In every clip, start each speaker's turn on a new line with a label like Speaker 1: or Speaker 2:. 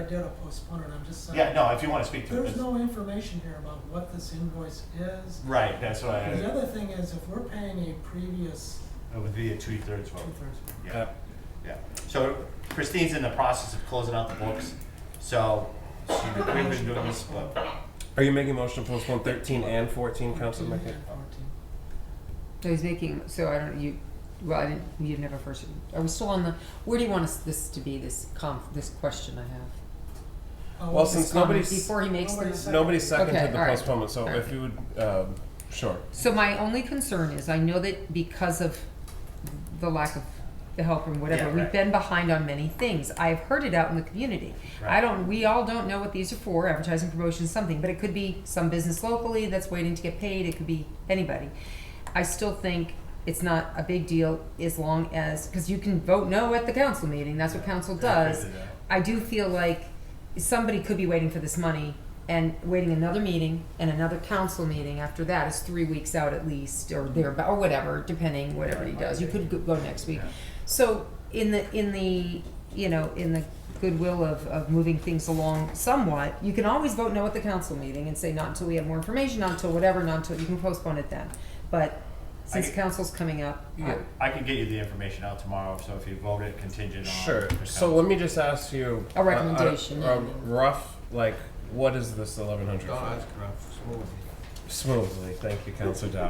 Speaker 1: idea to postpone it, I'm just saying.
Speaker 2: Yeah, no, if you wanna speak to it.
Speaker 1: There's
Speaker 2: it's-
Speaker 1: no information here about what this invoice is.
Speaker 2: Right, that's why
Speaker 1: The
Speaker 2: I,
Speaker 1: other thing is, if we're paying a previous
Speaker 2: it would be a two-thirds vote.
Speaker 1: two-thirds,
Speaker 2: Yeah, yeah. So Christine's in the process of closing out the books, so she, we've been doing this, but,
Speaker 3: Are you making a motion to postpone 13 and 14, Council
Speaker 1: fourteen
Speaker 3: Mckay?
Speaker 1: and fourteen.
Speaker 4: So he's making, so I don't, you, well, I didn't, you never first, are we still on the, where do you want us, this to be, this conf, this question I have?
Speaker 1: Oh,
Speaker 3: Well,
Speaker 1: this-
Speaker 3: since
Speaker 4: Comment
Speaker 3: nobody's-
Speaker 4: Before he makes
Speaker 1: Nobody
Speaker 4: this.
Speaker 1: said-
Speaker 3: Nobody seconded
Speaker 4: Okay,
Speaker 3: the
Speaker 4: all right.
Speaker 3: postponement, so
Speaker 4: All right.
Speaker 3: if you would, um, sure.
Speaker 4: So my only concern is, I know that because of the lack of the help and
Speaker 2: Yeah,
Speaker 4: whatever,
Speaker 2: right.
Speaker 4: we've been behind on many things. I've heard it out in the community.
Speaker 2: Right.
Speaker 4: I don't, we all don't know what these are for, advertising, promotion, something, but it could be some business locally that's waiting to get paid, it could be anybody. I still think it's not a big deal as long as, because you can vote no at the council meeting, that's what council does.
Speaker 2: uh,
Speaker 4: I do feel like somebody could be waiting for this money and waiting another meeting and another council meeting after that is three weeks out at least or there or whatever, depending whatever he does. You could go- go next week.
Speaker 2: Yeah.
Speaker 4: So in the in the you know in the goodwill of, of moving things along somewhat, you can always vote no at the council meeting and say not until we have more information, not until whatever, not until you can postpone it then. But since
Speaker 2: I-
Speaker 4: council's coming up, I-
Speaker 3: Yeah.
Speaker 2: I can get you the information out tomorrow, so if you vote it contingent on.
Speaker 3: Sure.
Speaker 2: the
Speaker 3: So
Speaker 2: council.
Speaker 3: let me just ask you
Speaker 4: A recommendation.
Speaker 3: A, rough, like, what is this 1100 for? Smoothly, thank you, Councilor Dow.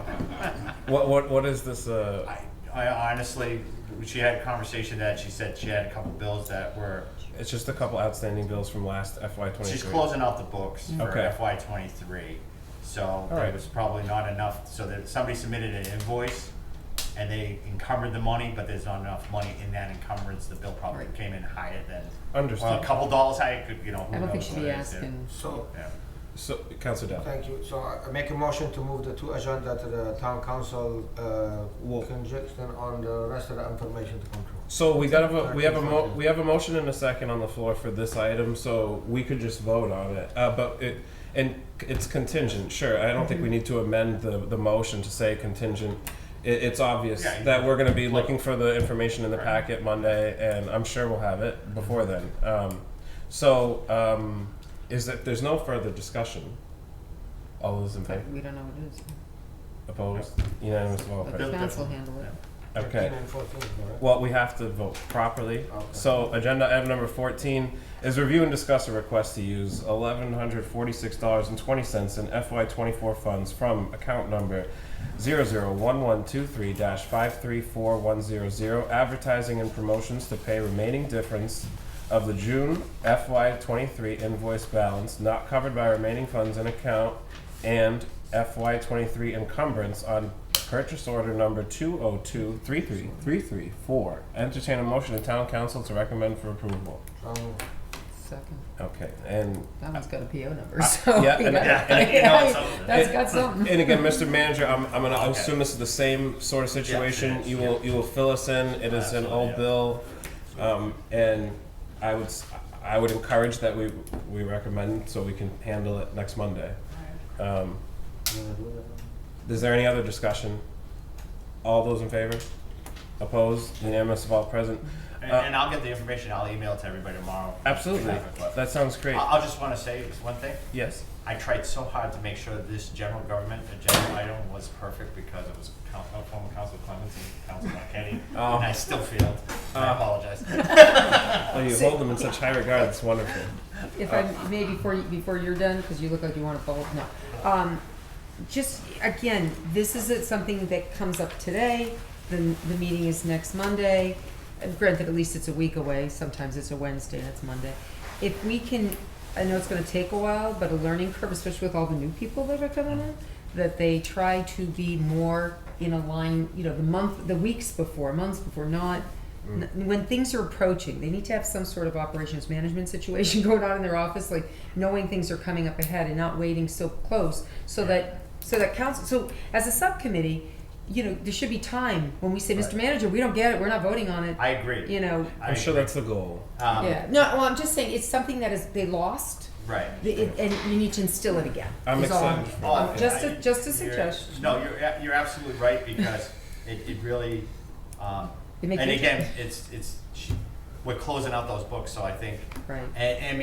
Speaker 3: what what what is this? Uh,
Speaker 2: I, I honestly, she had a conversation that she said she had a couple bills that were,
Speaker 3: it's just a couple outstanding bills from last FY23.
Speaker 2: she's closing out the books for
Speaker 3: Okay.
Speaker 2: FY twenty-three. So there
Speaker 3: right.
Speaker 2: was probably not enough, so that somebody submitted an invoice and they encumbered the money, but there's not enough money in that encumbrance. The bill probably
Speaker 4: Right.
Speaker 2: came in higher than. Well,
Speaker 3: Understood.
Speaker 2: a couple dollars higher, could, you know, who
Speaker 4: I don't think
Speaker 2: knows
Speaker 4: she'd
Speaker 2: what
Speaker 4: be
Speaker 2: it is, Oh, yeah.
Speaker 4: asking.
Speaker 5: So,
Speaker 2: Yeah.
Speaker 3: So, Councilor Dow.
Speaker 5: thank you. So I I make a motion to move the two agenda to the town council uh,
Speaker 3: Well-
Speaker 5: conjunction on the rest of the information to control.
Speaker 3: So we got a vo- we have a mo- we have a motion and a second on the floor for this item, so we could just vote on it. Uh, but it and it's contingent. Sure, I don't think we
Speaker 2: Mhm.
Speaker 3: need to amend the the motion to say contingent. It, it's obvious
Speaker 2: Yeah, you-
Speaker 3: that we're going to be looking for the information in the
Speaker 2: Right. Mhm.
Speaker 3: packet Monday, and I'm sure we'll have it before then. Um, so um, is that there's no further discussion? All those in favor?
Speaker 4: but we don't know what it is.
Speaker 3: Opposed? Unanimous vote.
Speaker 4: Let
Speaker 3: right?
Speaker 4: the
Speaker 2: Bill
Speaker 4: council
Speaker 2: definitely.
Speaker 4: handle it.
Speaker 3: Okay.
Speaker 5: 13 and 14, correct?
Speaker 3: Well, we have to vote properly.
Speaker 5: Okay.
Speaker 3: So, agenda item number fourteen is review and discuss a request to use eleven hundred forty-six dollars and twenty cents in FY twenty-four funds from account number zero zero one one two three dash five three four one zero zero advertising and promotions to pay remaining difference of the June FY twenty-three invoice balance not covered by remaining funds in account and FY twenty-three encumbrance on purchase order number two oh two three three three three four. Entertain a motion to town council to recommend for approval.
Speaker 5: So moved.
Speaker 4: Second.
Speaker 3: Okay, and
Speaker 4: That one's got a PO number, so.
Speaker 3: yeah, and-
Speaker 2: Uh, yeah, and you know it's something.
Speaker 4: That's got something.
Speaker 3: and again, Mr. Manager, I'm, I'm gonna
Speaker 2: Okay.
Speaker 3: assume this is the same sort of situation.
Speaker 2: it is,
Speaker 3: you will you will fill us in. It is an
Speaker 2: Absolutely,
Speaker 3: old
Speaker 2: yeah.
Speaker 3: bill, um, and I would s- I would encourage that we we recommend so we can handle it next Monday. Um,
Speaker 5: You wanna do that?
Speaker 3: Is there any other discussion? All those in favor? Opposed? Unanimous of all present?
Speaker 2: And,
Speaker 3: Uh,
Speaker 2: and I'll get the information. I'll email it to everybody tomorrow.
Speaker 3: Absolutely.
Speaker 2: If you have it, but-
Speaker 3: That sounds great.
Speaker 2: I, I just want to say this one thing.
Speaker 3: Yes.
Speaker 2: I tried so hard to make sure that this general government agenda item was perfect because it was coun- uh, former Council Clemens and Council Marquetti,
Speaker 3: Oh.
Speaker 2: and I still failed. I
Speaker 3: Oh.
Speaker 2: apologize. uh,
Speaker 3: Oh, you hold them in such high regard. That's wonderful.
Speaker 4: If I
Speaker 2: Oh.
Speaker 4: may, before, you- before you're done, because you look like you want to follow, no. Um, just, again, this is it- something that comes up today, the, the meeting is next Monday. Uh, Granted, at least it's a week away, sometimes it's a Wednesday, and it's Monday. If we can, I know it's gonna take a while, but a learning curve, especially with all the new people that are coming in, that they try to be more in a line, you know, the month, the weeks before, months before, not, n- when things are approaching, they need to have some sort of operations management situation going on in their office, like knowing things are coming up ahead and not waiting so close, so that, so that council, so as a subcommittee, you know, there should be time when we say, Mr.
Speaker 2: Right.
Speaker 4: Manager, we don't get it, we're not voting on it,
Speaker 2: I agree.
Speaker 4: you know.
Speaker 2: I
Speaker 3: I'm sure
Speaker 2: agree.
Speaker 3: that's the goal.
Speaker 2: Um,
Speaker 4: Yeah, no, well, I'm just saying, it's something that is, they lost,
Speaker 2: Right.
Speaker 4: the- it- and you need to instill it again.
Speaker 3: I'm
Speaker 4: is all
Speaker 3: excited. for
Speaker 2: Oh,
Speaker 3: that.
Speaker 2: I-
Speaker 4: just a- just a
Speaker 2: you're-
Speaker 4: suggestion.
Speaker 2: No, you're, a- you're absolutely right, because it, it really, um,
Speaker 4: It makes
Speaker 2: and
Speaker 4: me-
Speaker 2: again, it's, it's, she- we're closing out those books, so I think,
Speaker 4: Right.
Speaker 2: and, and